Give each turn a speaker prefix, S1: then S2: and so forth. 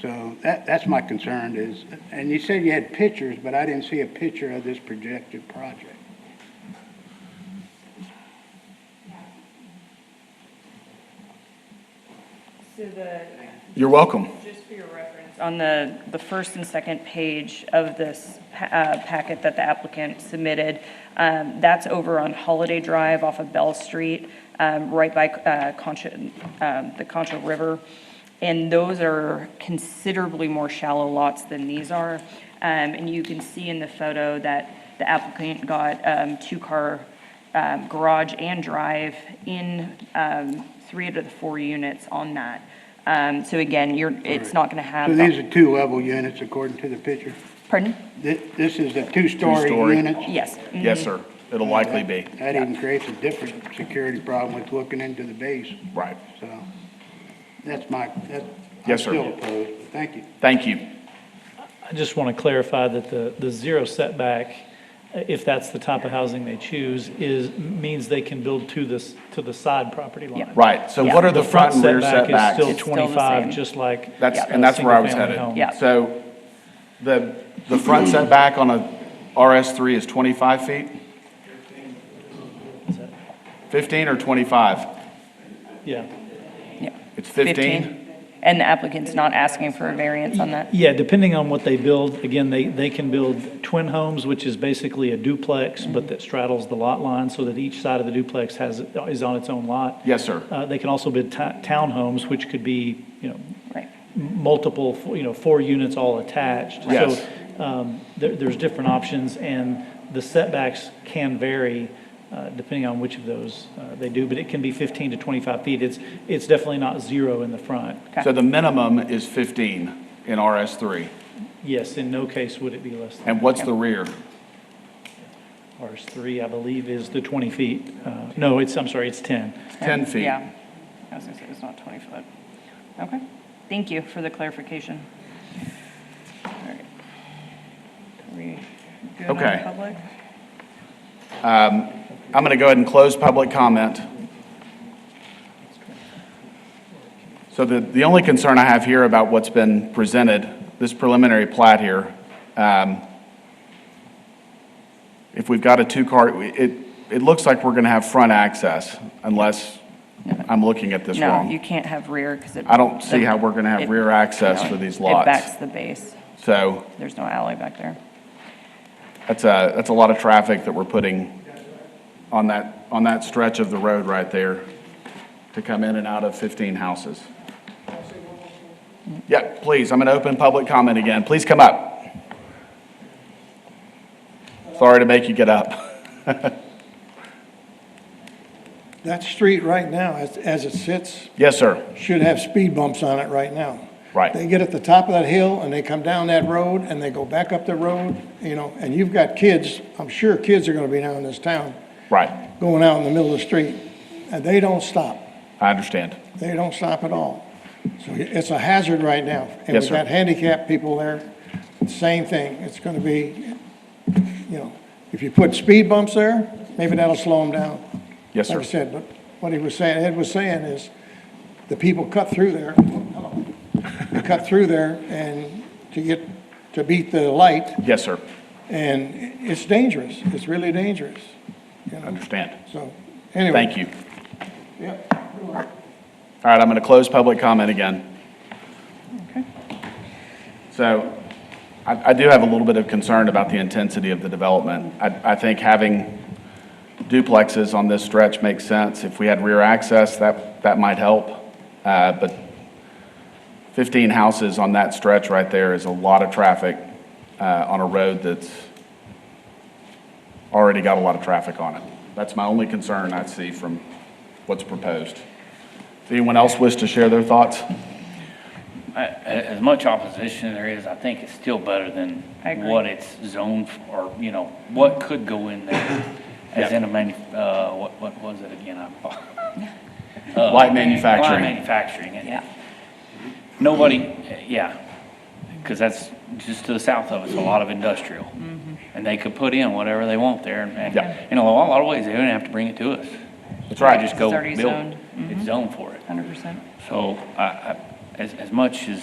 S1: So that, that's my concern is, and you said you had pictures, but I didn't see a picture of this projected project.
S2: So the,
S3: You're welcome.
S2: just for your reference, on the, the first and second page of this pa- uh, packet that the applicant submitted, um, that's over on Holiday Drive off of Bell Street, um, right by uh, Concha, um, the Concha River. And those are considerably more shallow lots than these are. Um, And you can see in the photo that the applicant got um, two-car um, garage and drive in um, three out of the four units on that. Um, So again, you're, it's not going to have.
S1: So
S2: the-
S1: these are two-level units according to the picture?
S2: Pardon?
S1: This, this is a two-story
S3: Two-story.
S1: unit?
S2: Yes. mhm.
S3: Yes, sir. It'll likely be,
S1: That even creates a different security problem with looking into the base,
S3: right.
S1: so that's my, that's.
S3: Yes, sir.
S1: I'm still opposed, but thank you.
S3: Thank you.
S4: I just want to clarify that the, the zero setback, uh, if that's the type of housing they choose, is, means they can build to this, to the side property
S2: Yeah.
S4: line.
S3: Right, so
S2: Yeah.
S3: what are the front and rear
S4: setback is still
S3: setbacks?
S2: the
S4: 25,
S2: same.
S4: just like.
S3: That's,
S4: a
S3: and that's where I was
S4: single-family
S3: headed.
S4: home.
S2: Yeah.
S3: So the, the front setback on a RS3 is 25 feet? 15 or 25?
S4: Yeah.
S2: Yeah.
S3: It's 15?
S2: And the applicant's not asking for a variance on that?
S4: Yeah, depending on what they build, again, they, they can build twin homes, which is basically a duplex, but that straddles the lot line so that each side of the duplex has, is on its own lot.
S3: Yes, sir.
S4: Uh, They can also build ta- townhomes, which could be, you know,
S2: Right.
S4: multiple, you know, four units all attached.
S3: Yes.
S4: So um, there- there's different options, and the setbacks can vary uh, depending on which of those uh, they do, but it can be 15 to 25 feet. It's, it's definitely not zero in the front.
S3: So the minimum is 15 in RS3.
S4: Yes, in no case would it be less than
S3: And what's the rear?
S4: RS3, I believe, is the 20 feet. Uh, No, it's, I'm sorry, it's 10.
S3: 10 feet.
S2: Yeah. I was going to say, it's not 20 foot. Okay. Thank you for the clarification. All right. Are we good on
S3: Okay.
S2: public?
S3: I'm going to go ahead and close public comment. So the, the only concern I have here about what's been presented, this preliminary plat here, um, if we've got a two-car, it, it looks like we're going to have front access unless I'm looking at this
S2: No, you
S3: wrong.
S2: can't have rear because it.
S3: I don't see how we're going to
S2: it-
S3: have rear access
S2: no,
S3: for these
S2: It
S3: lots.
S2: backs the base.
S3: So
S2: There's no alley back there.
S3: that's a, that's a lot of traffic that we're putting on that, on that stretch of the road right there to come in and out of 15 houses. Yeah, please, I'm going to open public comment again. Please come up. Sorry to make you get up.
S5: That street right now, as, as it sits,
S3: Yes, sir.
S5: should have speed bumps on it right now.
S3: Right.
S5: They get at the top of that hill and they come down that road and they go back up the road, you know, and you've got kids, I'm sure kids are gonna be down in this town,
S3: Right,
S5: going out in the middle of the street, and they don't stop.
S3: I understand.
S5: They don't stop at all. So it's a hazard right now. And
S3: Yes,
S5: we've
S3: sir.
S5: got handicapped people there, same thing. It's gonna be, you know, if you put speed bumps there, maybe that'll slow them down.
S3: Yes, sir.
S5: Like I said, but what he was saying, Ed was saying is, the people cut through there, hello, they cut through there and to get, to beat the light,
S3: Yes, sir.
S5: and it's dangerous. It's really dangerous,
S3: I understand.
S5: so, anyway.
S3: Thank you.
S5: Yep.
S3: All right, I'm going to close public comment again.
S2: Okay.
S3: So I, I do have a little bit of concern about the intensity of the development. I, I think having duplexes on this stretch makes sense. If we had rear access, that, that might help. Uh, but 15 houses on that stretch right there is a lot of traffic uh, on a road that's already got a lot of traffic on it. That's my only concern I see from what's proposed. Does anyone else wish to share their thoughts?
S6: A- As much opposition there is, I think it's still better than
S2: I agree.
S6: what it's zoned f- or, you know, what could go in there as in a manu, uh, what, what was it again? I fo- Uh,
S3: Light manufacturing.
S6: Light manufacturing. and
S2: Yeah.
S6: Nobody, yeah, because that's just to the south of us, a lot of industrial.
S2: Mm-hmm.
S6: And they could put in whatever they want there and-
S3: Yeah.
S6: and, you know, a lot of ways, they don't have to bring it to us.
S3: That's right.
S6: Just go
S2: already Mm-hmm.
S6: build.
S2: zoned.
S6: It's zoned for it.
S2: 100%.
S6: So I, I, as, as much as